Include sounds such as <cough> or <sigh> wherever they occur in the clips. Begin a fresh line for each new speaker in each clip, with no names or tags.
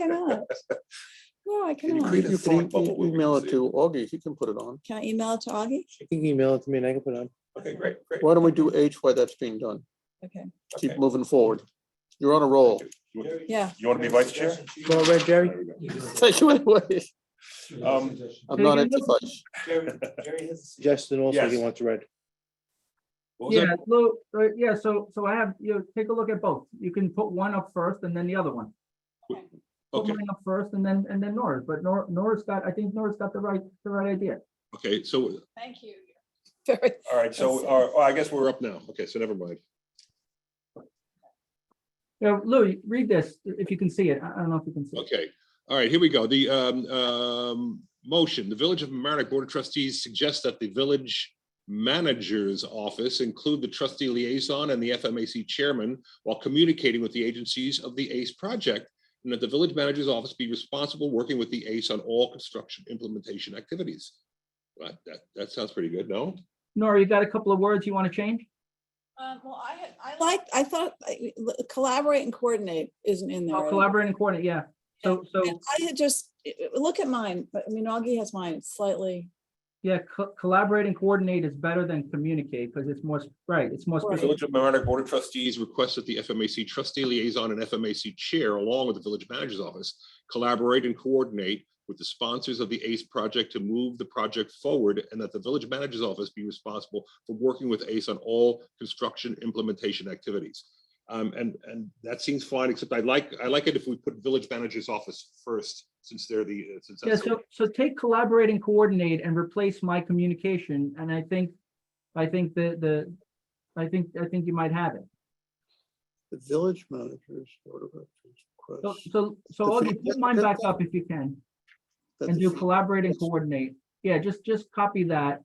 cannot. No, I
you
cannot.
create a
You
thought
can e-
bubble where we
email
can
it to Augie, he can put it on.
Can I email it to Augie?
You can email it to me and I can put it on.
Okay, great, great.
Why don't we do H while that's being done?
Okay,
Keep
Okay.
moving forward. You're on a roll.
You want-
yeah.
you want to be vice chair?
Go red, Jerry.
There we go.
Take you away.
<laughs>
Um,
I'm not anti-fudge.
Justin also, he
Yes.
wants red.
What was that?
Yeah, well, uh, yeah, so, so I have, you know, take a look at both. You can put one up first and then the other one. Put
Okay,
mine up first and then, and then Nora's, but Nora, Nora's got, I think Nora's got the right, the right idea.
okay, so
Thank you. <laughs> Very,
All right, so, all right, well, I guess
we're
we're up.
up now. Okay, so never mind.
Now, Lou, read this, if you can see it. I I don't know if you can see it.
Okay, all right, here we go. The um, um, motion, the Village of Mamaroneck Board of Trustees suggests that the village manager's office include the trustee liaison and the FMAC chairman while communicating with the agencies of the ACE project, and that the village manager's office be responsible working with the ACE on all construction implementation activities. Right, that, that sounds pretty good, no?
Nora, you got a couple of words you want to change?
um, well, I had, I liked, I thought I- l- collaborate and coordinate isn't in there.
I'll collaborate and coordinate, yeah. So, so,
And I had just, look at mine, but I mean, Augie has mine It's slightly,
yeah, co- collaborate and coordinate is better than communicate because it's more, s- right, it's more
Right.
specific.
Village of Mamaroneck Board of Trustees requests that the FMAC trustee liaison and FMAC chair, along with the village manager's office, collaborate and coordinate with the sponsors of the ACE project to move the project forward and that the village manager's office be responsible for working with ACE on all construction implementation activities. Um, and, and that seems fine, except I like, I like it if we put village manager's office first, since they're the, uh, since
Yeah,
that's.
so, so take collaborate and coordinate and replace my communication, and I think, I think the, the, I think, I think you might have it.
The village managers. Board of Trustees
So,
requests
so, so
The
Augie,
thing-
put mine
that-
back
that-
up if you can,
that
and
the
do
fee-
collaborate and coordinate. Yeah, just, just copy that.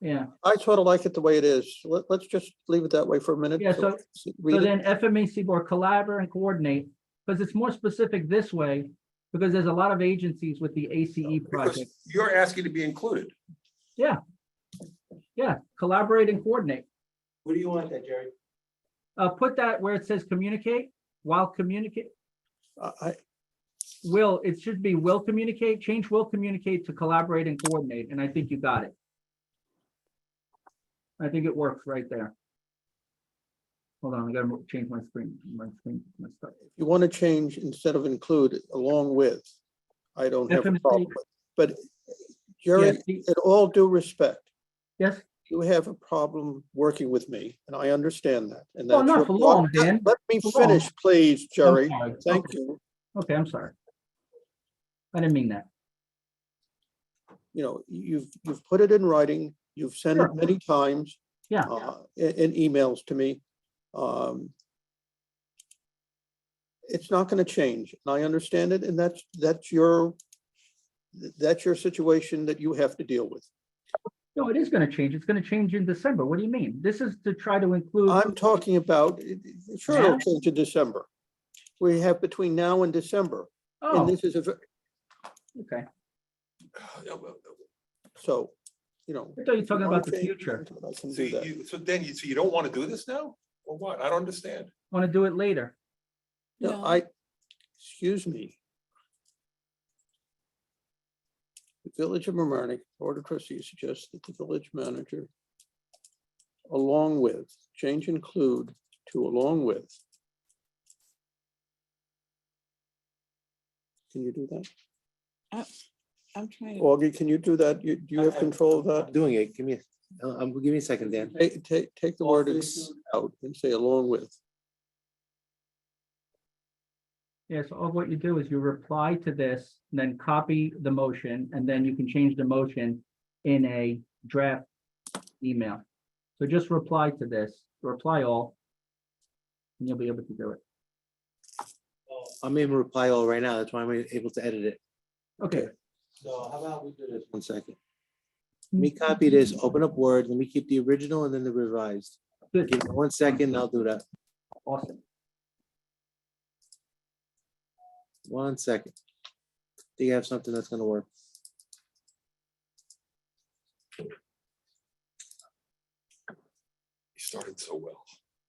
Yeah,
I sort of like it the way it is. Let, let's just leave it that way for a minute.
Yeah, so-
so
so
read it.
then FMAC board collaborate and coordinate, because it's more specific this way, because there's a lot of agencies with the ACE
Because
project.
You're asking to be included.
Yeah, collaborate and coordinate.
What do you want that, Jerry?
Uh, put that where it says communicate, while communicate,
I, I-
Will, it should be will communicate, change will communicate to collaborate and coordinate, and I think you got it. I think it works right there. Hold on, I gotta mo- change my screen, my screen, my stuff.
you want to change instead of include along with. I don't have a
FMC.
problem with, but
Yeah,
Jerry,
see-
in all due respect,
Yes,
you have a problem working with me, and I understand that, and
Well,
that's.
not
your
for
problem.
long,
Let-
Dan,
Let me
for long.
finish, please, Jerry.
sorry,
Thank
okay.
you.
okay, I'm sorry. I didn't mean that.
You know, you've, you've put it in writing, you've sent it
Sure.
many times.
Yeah.
uh, In, in emails to me. Um, It's not gonna change, and I understand it, and that's, that's your, that's your situation that you have to deal with.
No, it is gonna change. It's gonna change in December. What do you mean? This is to try to include.
I'm talking about, sure,
Mm-hmm. Yeah.
it'll change in December. We have between now and December.
Oh,
And this is a, ver-
okay.
so, you know.
I thought you were talking
wanna
about the
change,
future.
I can do
So
that.
you, so then you, so you don't want to do this now? Or what? I don't understand.
Want to do it later.
No,
No.
I, excuse me. The Village of Mamaroneck Board of Trustees suggests that the village manager along with, change include to along with. Can you do that?
I'm trying to,
Augie, can you do that? You, do you have control of
I'm
that?
Doing it. Give me, a- uh, um, give me a second, Dan.
Take, take, take the word
Office.
out and say along with.
Yes, all what you do is you reply to this, then copy the motion, and then you can change the motion in a draft email. So just reply to this, reply all. And you'll be able to do it.
I'm in reply all right now. That's why I'm able to edit it.
Okay.
So how about we do this?
One second. Let me copy this, open up Word, let me keep the original and then the revised.
Good.
Give me one second, I'll do that.
Awesome.
One second. Do you have something that's gonna work?
You started so well.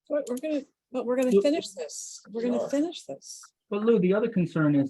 but we're gonna, but we're gonna finish this. We're gonna finish this.
But Lou, the other concern is